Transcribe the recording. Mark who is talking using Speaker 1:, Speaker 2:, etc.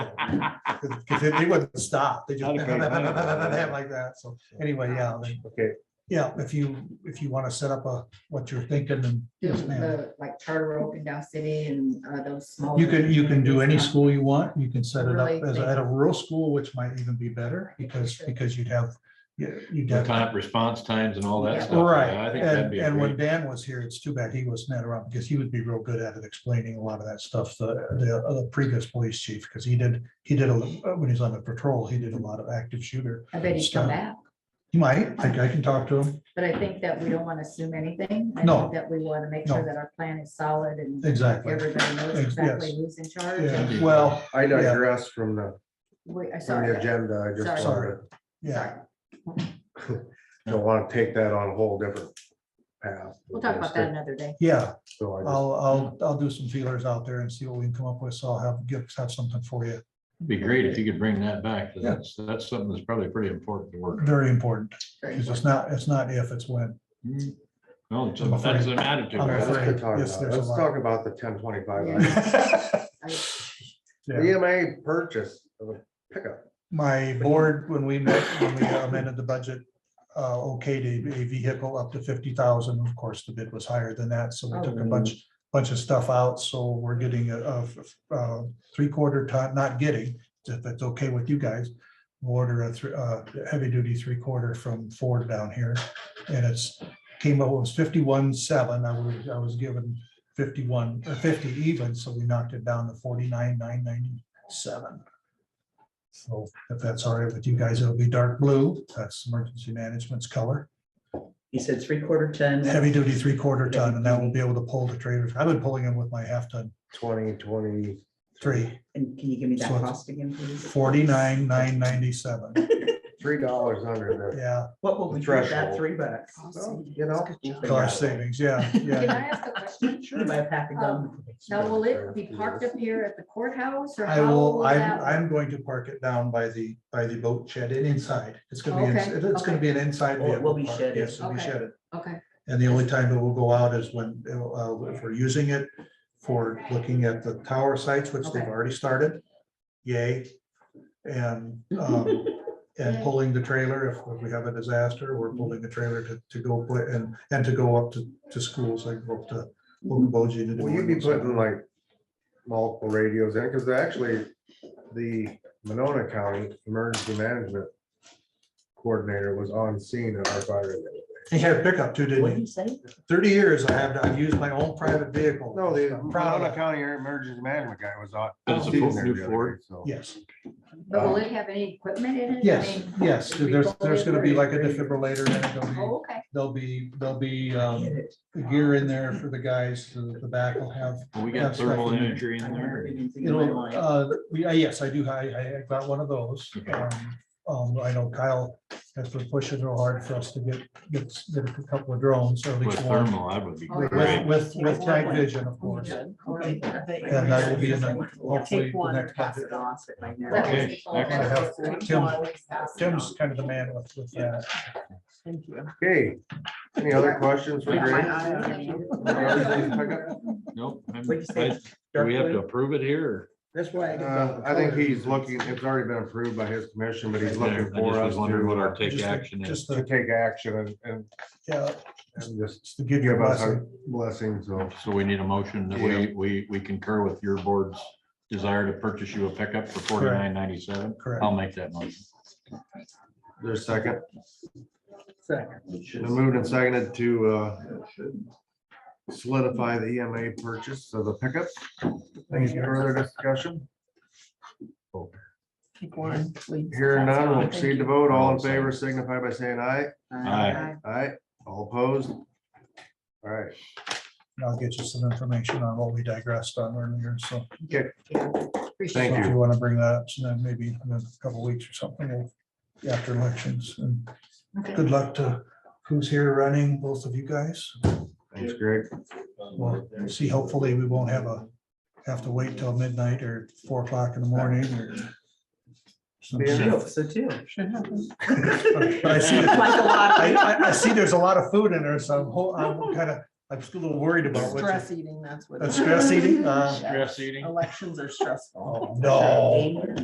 Speaker 1: Because they wouldn't stop, they just
Speaker 2: Not a great idea.
Speaker 1: like that, so anyway, yeah, then-
Speaker 2: Okay,
Speaker 1: yeah, if you, if you want to set up a, what you're thinking, and yes, ma'am.
Speaker 3: the, Like charter open down city and uh, those small.
Speaker 1: You can, you can do any
Speaker 3: It's not-
Speaker 1: school you want, you can set it up
Speaker 3: Really
Speaker 1: as
Speaker 3: think-
Speaker 1: at a rural school, which might even be better, because, because you'd have, yeah, you'd
Speaker 4: The
Speaker 1: have.
Speaker 4: time, response times and all that
Speaker 3: Yeah.
Speaker 4: stuff. yeah,
Speaker 1: Right,
Speaker 4: I think that'd
Speaker 1: and,
Speaker 4: be
Speaker 1: and when
Speaker 4: great.
Speaker 1: Dan was here, it's too bad he wasn't around, because he would be real good at it, explaining a lot of that stuff, the, the uh, previous police chief, because he did, he did, a when he was on the patrol, he did a lot of active shooter.
Speaker 3: I bet he's come
Speaker 1: stuff.
Speaker 3: back,
Speaker 1: You might, I, I can talk to him,
Speaker 3: but I think that we don't want to assume anything. I
Speaker 1: No.
Speaker 3: think That we want to make
Speaker 1: No.
Speaker 3: sure that our plan is solid and
Speaker 1: exactly.
Speaker 3: everybody knows
Speaker 1: Yes.
Speaker 3: exactly who's in charge.
Speaker 1: Yeah,
Speaker 3: and
Speaker 1: well,
Speaker 2: I digress from the,
Speaker 3: we- I saw
Speaker 2: from the
Speaker 3: that.
Speaker 2: agenda. I just
Speaker 1: Sorry.
Speaker 2: wanted,
Speaker 1: yeah,
Speaker 3: Sorry.
Speaker 2: don't want to take that on a whole different path.
Speaker 3: We'll talk about that another day.
Speaker 1: yeah,
Speaker 2: So I just,
Speaker 1: I'll, I'll, I'll do some feelers out there and see what we can come up with, so I'll have, give, have something for you,
Speaker 4: Be great if you could bring that back. 'cause
Speaker 1: Yeah.
Speaker 4: That's, that's something that's probably pretty important to work on.
Speaker 1: very important,
Speaker 3: Very
Speaker 1: because it's not, it's not if, it's when.
Speaker 4: Mm. No, it's-
Speaker 1: Mm-hmm. I'm afraid-
Speaker 4: that's an attitude.
Speaker 1: I'm
Speaker 2: Let's
Speaker 4: right?
Speaker 1: afraid-
Speaker 2: get talking
Speaker 1: yes,
Speaker 2: about it.
Speaker 1: there's a
Speaker 2: Let's
Speaker 1: lot.
Speaker 2: talk about the ten twenty-five.
Speaker 3: Yeah.
Speaker 1: Yeah.
Speaker 2: EMA purchase of a pickup.
Speaker 1: My board, when we met, when we amended the budget, uh, okayed a- a vehicle up to fifty thousand. Of course, the bid was higher than that, so we took a bunch, bunch of stuff out, so we're getting a, of, uh, three-quarter ton, not getting, if that's okay with you guys. We'll Order a, thr- uh, heavy-duty three-quarter from Ford down here, and it's, came up, it was fifty-one seven, I was, I was given fifty-one, or fifty even, so we knocked it down to forty-nine, nine ninety-seven. So if that's all right with you guys, it'll be dark blue. That's emergency management's color.
Speaker 5: He said three quarter ton.
Speaker 1: Heavy duty three quarter ton and that will be able to pull the trailers. I've been pulling them with my half ton
Speaker 2: twenty twenty.
Speaker 1: three,
Speaker 5: And can you give me that
Speaker 1: So it's
Speaker 5: cost again, please?
Speaker 1: forty nine, nine ninety seven.
Speaker 2: Three dollars under
Speaker 1: Yeah,
Speaker 5: What will we do with that?
Speaker 2: Threshold.
Speaker 5: Three bucks.
Speaker 3: Cost
Speaker 2: the,
Speaker 3: savings.
Speaker 2: you know.
Speaker 3: Good
Speaker 2: we'll
Speaker 3: job.
Speaker 2: figure it
Speaker 1: cost
Speaker 2: out.
Speaker 1: savings. Yeah,
Speaker 3: Can
Speaker 1: yeah.
Speaker 3: I ask a question?
Speaker 5: Sure, buy a pack of gum.
Speaker 3: Now, will it be parked up here at the courthouse or
Speaker 1: I
Speaker 3: how
Speaker 1: will,
Speaker 3: will
Speaker 1: I'm,
Speaker 3: that?
Speaker 1: I'm going to park it down by the, by the boat shed and inside. It's gonna be, ins-
Speaker 3: Oh, Okay,
Speaker 1: it's gonna
Speaker 3: okay.
Speaker 1: be an inside.
Speaker 5: Oh, it
Speaker 1: vehicle
Speaker 5: will be
Speaker 1: park.
Speaker 5: shedded.
Speaker 1: Yes, it'll be
Speaker 3: Okay.
Speaker 1: shedded.
Speaker 3: Okay,
Speaker 1: And the only time it will go out is when, uh, if we're using it for looking at the tower sites, which they've
Speaker 3: Okay.
Speaker 1: already started. Yay. And, um, and
Speaker 3: Yay. Mm-hmm.
Speaker 1: pulling the trailer, if if we have a disaster, we're pulling the trailer to, to go put and, and to go up to, to schools like go up to
Speaker 5: Um,
Speaker 1: Okoboji. to do
Speaker 2: Will you be
Speaker 1: it.
Speaker 2: putting like multiple radios in? Because actually, the Monona County Emergency Management Coordinator was on scene at our fire. event.
Speaker 1: He had a pickup too,
Speaker 5: What
Speaker 1: didn't
Speaker 5: did
Speaker 1: he?
Speaker 5: he say?
Speaker 1: Thirty years I have, I've used my own private vehicle.
Speaker 2: No, the
Speaker 1: I'm proud
Speaker 2: Monona
Speaker 1: of that.
Speaker 2: County Emergency Management guy was on.
Speaker 4: That's a
Speaker 2: scene
Speaker 4: full
Speaker 2: there
Speaker 4: new
Speaker 2: the other
Speaker 4: Ford.
Speaker 2: day, so.
Speaker 1: Yes,
Speaker 3: but will
Speaker 2: Um,
Speaker 3: it have any equipment in it? I
Speaker 1: yes,
Speaker 3: mean,
Speaker 1: yes.
Speaker 3: if we
Speaker 1: There's,
Speaker 3: go
Speaker 1: there's gonna be
Speaker 3: in,
Speaker 1: like a defibrillator and there'll be,
Speaker 3: Oh, okay,
Speaker 1: there'll be, there'll be, um,
Speaker 5: Get it.
Speaker 1: the gear in there for the guys, the the back will have.
Speaker 4: We got thermal imagery in
Speaker 5: I don't
Speaker 4: there.
Speaker 5: remember anything in my
Speaker 1: It'll,
Speaker 5: life.
Speaker 1: uh, we, uh, yes, I do, I, I I got one of those. Um, Um, I know Kyle has been pushing real hard for us to get, get, get a couple of drones, or at
Speaker 4: With
Speaker 1: least one,
Speaker 4: thermal, that would be
Speaker 3: With-
Speaker 1: with,
Speaker 4: great.
Speaker 1: with, with night vision, of course.
Speaker 5: Oh, Okay.
Speaker 1: And that will be in the, hopefully,
Speaker 5: Take
Speaker 1: the
Speaker 5: one and
Speaker 1: next
Speaker 5: pass
Speaker 1: budget.
Speaker 5: it off at my
Speaker 3: That
Speaker 5: next.
Speaker 4: Okay,
Speaker 3: was before.
Speaker 1: I have Tim- Tim's kind of the man with, with that.
Speaker 5: Thank you.
Speaker 2: Okay, any other questions for
Speaker 5: Yeah,
Speaker 2: Greg?
Speaker 5: I- I-
Speaker 4: Nope. I'm-
Speaker 5: What'd you say?
Speaker 4: I- Do we have to approve it here? or-
Speaker 5: That's why.
Speaker 2: Uh, I think he's looking, it's already been approved by his commission, but he's
Speaker 4: I
Speaker 2: looking
Speaker 4: just
Speaker 2: for us
Speaker 4: was wondering what our
Speaker 2: to,
Speaker 4: take
Speaker 1: Just the-
Speaker 4: action is.
Speaker 1: Just
Speaker 2: to
Speaker 1: to,
Speaker 2: take action and, and,
Speaker 1: yeah,
Speaker 2: and just
Speaker 1: just to give you a
Speaker 2: give us
Speaker 1: blessing.
Speaker 2: our blessing, so.
Speaker 4: So we need a motion that we, we, we concur with your board's desire to purchase you a pickup for forty-nine ninety-seven.
Speaker 1: Correct.
Speaker 4: I'll make that motion.
Speaker 2: There's a second,
Speaker 5: Second.
Speaker 2: been moved and seconded to, uh, solidify the EMA purchase of the pickup. Any further discussion?
Speaker 5: Take one, please.
Speaker 2: Hearing none, we'll
Speaker 5: Thank
Speaker 2: proceed to
Speaker 5: you.
Speaker 2: vote. All in favor signify by saying aye.
Speaker 4: Aye.
Speaker 2: Aye, all opposed? All right,
Speaker 1: And I'll get you some information on what we digressed on earlier, so.
Speaker 3: Appreciate
Speaker 2: Thank
Speaker 1: So If
Speaker 2: you.
Speaker 1: you want to bring that up, so then maybe in a couple weeks or something, we'll- after elections, and
Speaker 3: it. Okay.
Speaker 1: good luck to who's here running, both of you guys.
Speaker 2: thanks, Greg.
Speaker 1: We'll see, hopefully, we won't have a, have to wait till midnight or four o'clock in the morning or. some shit.
Speaker 5: Chill, So too.
Speaker 1: But I see,
Speaker 5: Like a lot
Speaker 1: I,
Speaker 5: of
Speaker 1: I, I see there's a lot of food in there, so I'm, ho- I'm kind of, I'm just a little worried about what.
Speaker 5: stress
Speaker 1: you-
Speaker 5: eating, that's what.
Speaker 1: That's stress eating, uh,
Speaker 4: Stress eating.
Speaker 5: Elections are stressful.
Speaker 1: Oh, no.